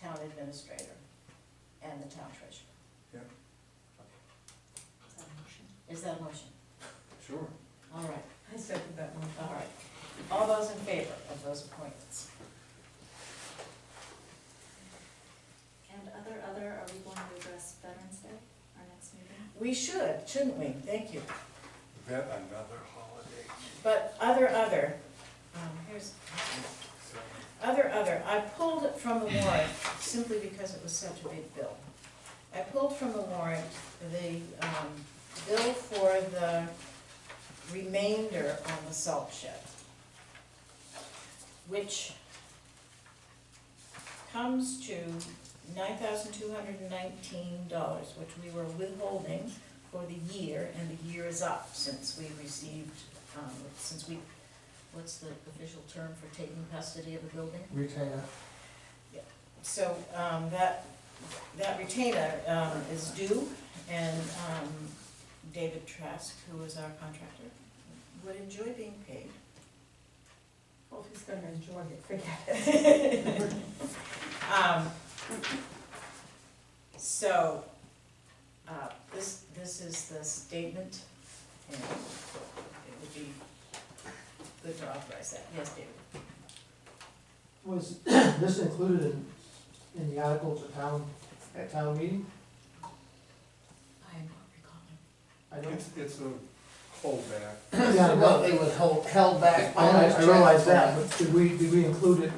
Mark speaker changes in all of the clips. Speaker 1: town administrator and the town treasurer.
Speaker 2: Yeah.
Speaker 1: Is that a motion?
Speaker 2: Sure.
Speaker 1: All right,
Speaker 3: I second that one.
Speaker 1: all right. All those in favor of those appointments?
Speaker 4: And other, other, are we going to address Veterans Day, our next meeting?
Speaker 1: We should, shouldn't we? Thank you.
Speaker 2: Vet another holiday.
Speaker 1: But other, other, um, here's,
Speaker 2: So,
Speaker 1: Other, other, I pulled it from the warrant simply because it was such a big bill. I pulled from the warrant the um, bill for the remainder on the salt shed, which comes to nine thousand two hundred and nineteen dollars, which we were withholding for the year, and the year is up since we received, um, since we, what's the official term for taking custody of a building?
Speaker 5: Retainer,
Speaker 1: So, um, that, that retainer, um, is due, and, um, David Trask, who is our contractor, would enjoy being paid.
Speaker 3: Well, if he's gonna enjoy it, forget it.
Speaker 1: Um, So, uh, this, this is the statement, and it would be good to authorize that, yes, David?
Speaker 5: was this included in, in the article at town, at town meeting?
Speaker 1: I am not recalling.
Speaker 5: I don't,
Speaker 2: It's, it's a holdback.
Speaker 5: yeah,
Speaker 6: Well,
Speaker 5: no,
Speaker 6: they was hold, held back.
Speaker 5: I, I- I
Speaker 6: bonus
Speaker 5: realize
Speaker 6: check.
Speaker 5: that, but did we, did we include it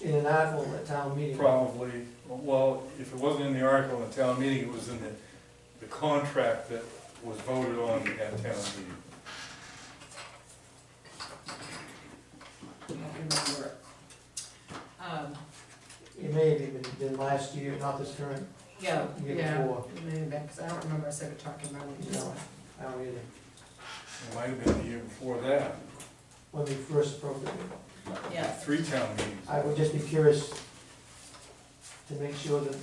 Speaker 5: in an article at town meeting?
Speaker 2: Probably, well, if it wasn't in the article in the town meeting, it was in the, the contract that was voted on at town meeting.
Speaker 3: I don't remember it. Um,
Speaker 5: It may have even been last year, not this current,
Speaker 3: yeah,
Speaker 5: year
Speaker 3: yeah,
Speaker 5: before,
Speaker 3: maybe back, 'cause I don't remember us ever talking about it.
Speaker 5: No. I don't either,
Speaker 2: It might have been the year before that,
Speaker 5: when we first appropriated.
Speaker 3: Yeah.
Speaker 2: three town meetings.
Speaker 5: I would just be curious to make sure that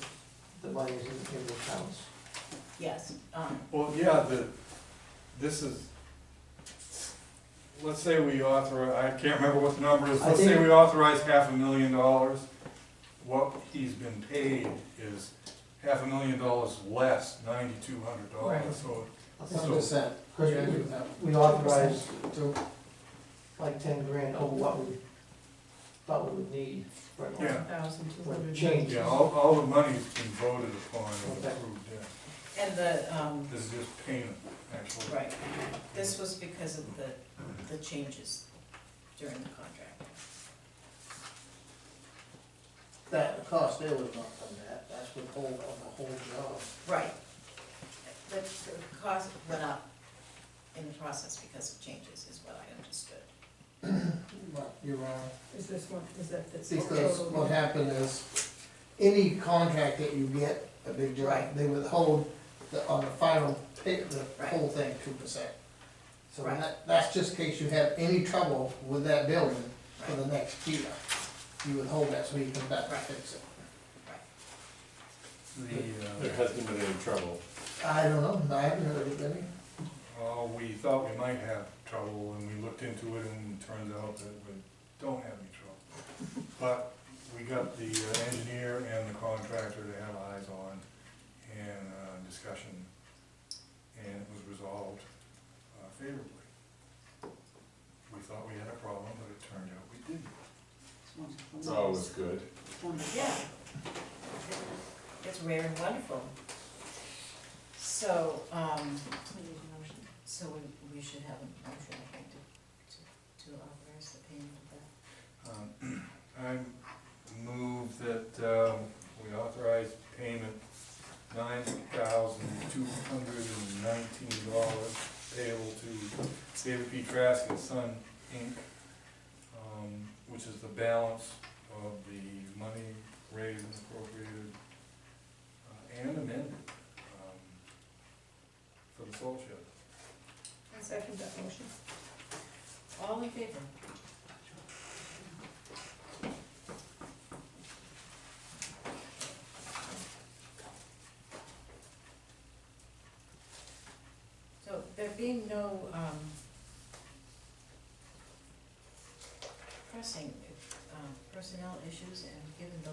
Speaker 5: the money is in, in the accounts.
Speaker 1: Yes, um,
Speaker 2: Well, yeah, the, this is, let's say we author, I can't remember what the number is,
Speaker 5: I
Speaker 2: let's say
Speaker 5: think-
Speaker 2: we authorize half a million dollars. What he's been paid is half a million dollars less ninety-two hundred
Speaker 5: Right.
Speaker 2: dollars, so
Speaker 5: I think
Speaker 6: One percent.
Speaker 5: Cause
Speaker 6: Yeah, I agree
Speaker 5: we,
Speaker 6: with that.
Speaker 5: we authorized
Speaker 6: Two.
Speaker 5: like ten grand over what we thought we would need for an
Speaker 2: Yeah.
Speaker 3: Thousand two hundred.
Speaker 5: Change.
Speaker 2: Yeah, all, all the money's been voted upon and
Speaker 5: Okay.
Speaker 2: approved, yeah.
Speaker 1: and the, um,
Speaker 2: This is just payment, actually.
Speaker 1: Right, this was because of the, the changes during the contract.
Speaker 6: That, the cost there was not from that, that's withhold of the whole job.
Speaker 1: Right. The, the cost went up in the process because of changes, is what I understood.
Speaker 6: But you're wrong,
Speaker 3: Is this one, is that, that's.
Speaker 6: because what happened is, any contract that you get, a big job,
Speaker 1: Right.
Speaker 6: they withhold the, on the final, pay the
Speaker 1: Right.
Speaker 6: whole thing, two percent. So
Speaker 1: Right.
Speaker 6: that, that's just in case you have any trouble with that building for the next year. You withhold that, so you come back and
Speaker 1: Right.
Speaker 6: fix it.
Speaker 2: The, uh,
Speaker 7: There hasn't been any trouble.
Speaker 6: I don't know, I haven't heard of any.
Speaker 2: uh, oh, we thought we might have trouble, and we looked into it, and it turns out that we don't have any trouble. But we got the uh, engineer and the contractor to have eyes on, and, uh, discussion, and it was resolved uh, favorably. We thought we had a problem, but it turned out we didn't.
Speaker 7: It's always good.
Speaker 1: Yeah. It's rare and wonderful. So, um,
Speaker 4: We need a motion.
Speaker 1: so we, we should have a motion, I think, to, to to authorize the payment of that.
Speaker 2: Um, I move that um, we authorize payment nine thousand two hundred and nineteen dollars payable to David P. Trask and Son, Inc., um, which is the balance of the money raised and appropriated uh, and amended um, for the salt shed.
Speaker 3: I second that motion.
Speaker 1: All in favor? So there being no, um, pressing, um, personnel uh, issues and given the